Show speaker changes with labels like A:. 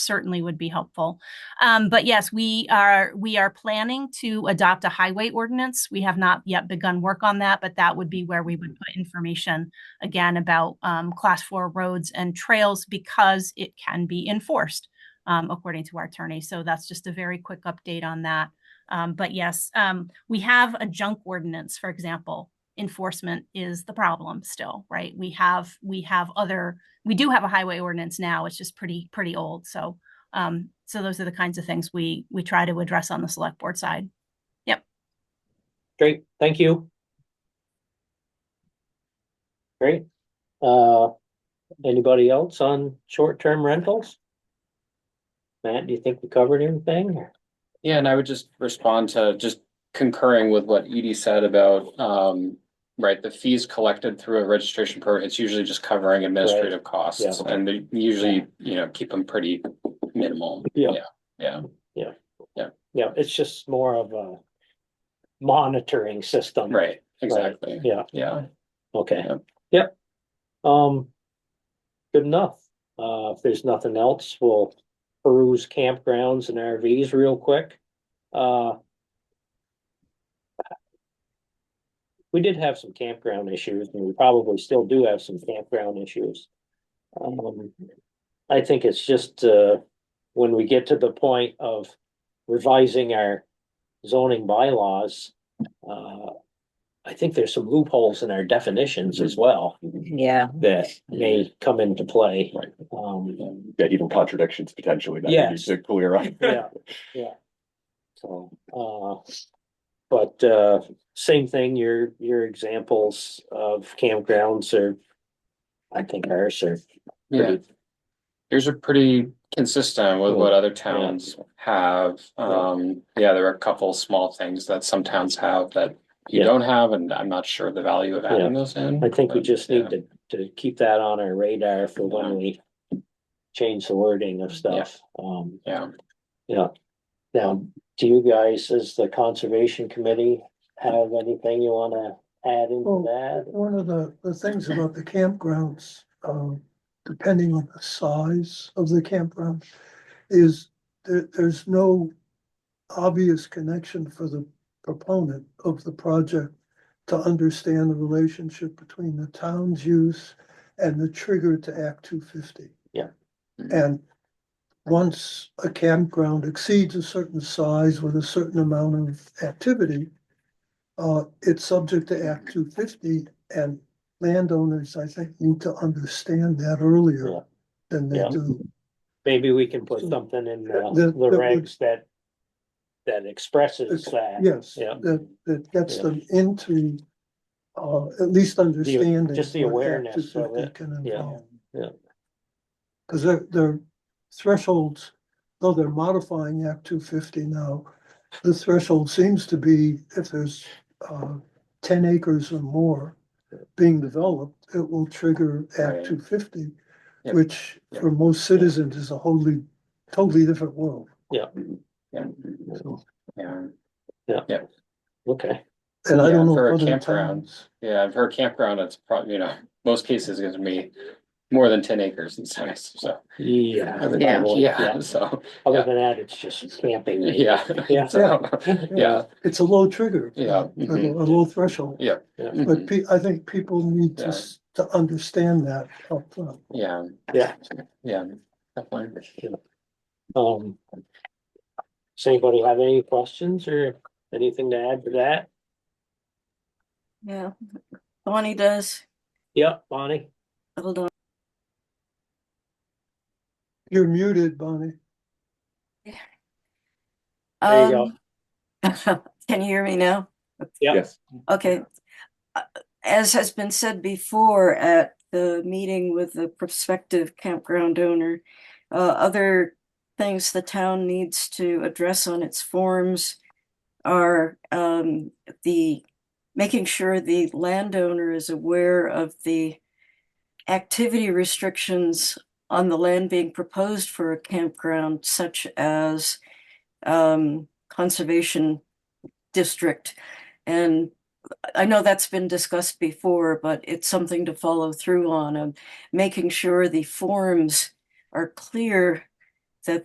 A: certainly would be helpful. Um, but yes, we are, we are planning to adopt a highway ordinance. We have not yet begun work on that, but that would be where we would put information again about, um, class four roads and trails because it can be enforced, um, according to our attorney. So that's just a very quick update on that. Um, but yes, um, we have a junk ordinance, for example. Enforcement is the problem still, right? We have, we have other, we do have a highway ordinance now. It's just pretty, pretty old. So, um, so those are the kinds of things we, we try to address on the select board side.
B: Great, thank you. Great. Uh, anybody else on short-term rentals? Matt, do you think we covered everything?
C: Yeah, and I would just respond to just concurring with what Edie said about, um, right, the fees collected through a registration program, it's usually just covering administrative costs.
B: Yeah.
C: And they usually, you know, keep them pretty minimal.
B: Yeah.
C: Yeah,
B: Yeah, it's just more of a monitoring system.
C: right, exactly.
B: Yeah,
C: Yeah,
B: okay,
C: Yeah.
B: yep. Um, good enough. Uh, if there's nothing else, we'll peruse campgrounds and RVs real quick. Uh. We did have some campground issues and we probably still do have some campground issues. Um, I think it's just, uh, when we get to the point of revising our zoning bylaws, uh, I think there's some loopholes in our definitions as well
D: Yeah,
B: that may come into play.
C: Right.
B: Um,
E: Yeah, even contradictions potentially that we need
B: Yes.
E: to clear up.
B: yeah, yeah. So, uh, but, uh, same thing, your, your examples of campgrounds are, I think ours are
C: yeah.
B: pretty,
C: Yours are pretty consistent with what other towns have. Um, yeah, there are a couple small things that some towns have that you
B: Yeah.
C: don't have, and I'm not sure the value of adding those in.
B: I think we
C: but,
B: just
C: Uh, yeah.
B: need to, to keep that on our radar for when we change the wording of stuff. Um,
C: Yeah.
B: Yeah. Now, do you guys, as the conservation committee, have anything you wanna add into
F: Oh.
B: that?
F: One of the, the things about the campgrounds, um, depending on the size of the campground, is there, there's no obvious connection for the proponent of the project to understand the relationship between the town's use and the trigger to Act two fifty.
B: Yeah.
F: And once a campground exceeds a certain size with a certain amount of activity, uh, it's subject to Act two fifty and landowners, I think, need to understand that
B: Yeah.
F: earlier than they
B: Yeah.
F: do.
B: Maybe we can put something in the,
F: The-
B: the
F: the-
B: regs that, that expresses that.
F: Yes,
B: Yeah.
F: that, that gets
B: Yeah.
F: them into, uh, at least understanding.
B: just the
F: what Act
B: awareness of
F: 250
B: it.
F: Can
B: Yeah.
F: involve.
B: Yeah.
F: Cause their, their thresholds, though they're modifying Act two fifty now, the threshold seems to be if there's, uh, ten acres or more being developed, it will trigger
C: Right.
F: Act two fifty,
C: Yeah.
F: which for most citizens is a wholly, totally different world.
C: Yeah,
F: So,
C: yeah,
B: Okay,
F: And I
C: Yeah,
F: don't know.
C: for a
F: other
C: campground.
F: towns.
C: yeah, for a campground, it's probably, you know, most cases it's gonna be more than ten acres in size, so.
B: yeah.
D: Yeah.
C: Yeah, so,
B: Other than that, it's just camping.
C: yeah.
B: Yeah.
C: So, yeah,
F: It's a low trigger.
C: Yeah,
F: A
C: mhm.
F: a low threshold, but
C: mhm,
F: pe- I think people need to,
C: Yeah.
F: s- to understand that upfront.
C: yeah.
B: Yeah.
C: Yeah, definitely.
B: Um. Does anybody have any questions or anything to add to that?
G: Yeah, Bonnie does.
B: Yep, Bonnie?
G: Hold on.
F: You're muted, Bonnie.
B: There you go.
G: Um, Can you hear me now?
B: Yeah.
E: Yes.
G: Okay. Uh, As has been said before at the meeting with the prospective campground owner, uh, other things the town needs to address on its forms are, um, the, making sure the landowner is aware of the activity restrictions on the land being proposed for a campground such as, um, conservation district. And I know that's been discussed before, but it's something to follow through on, of making sure the forms are clear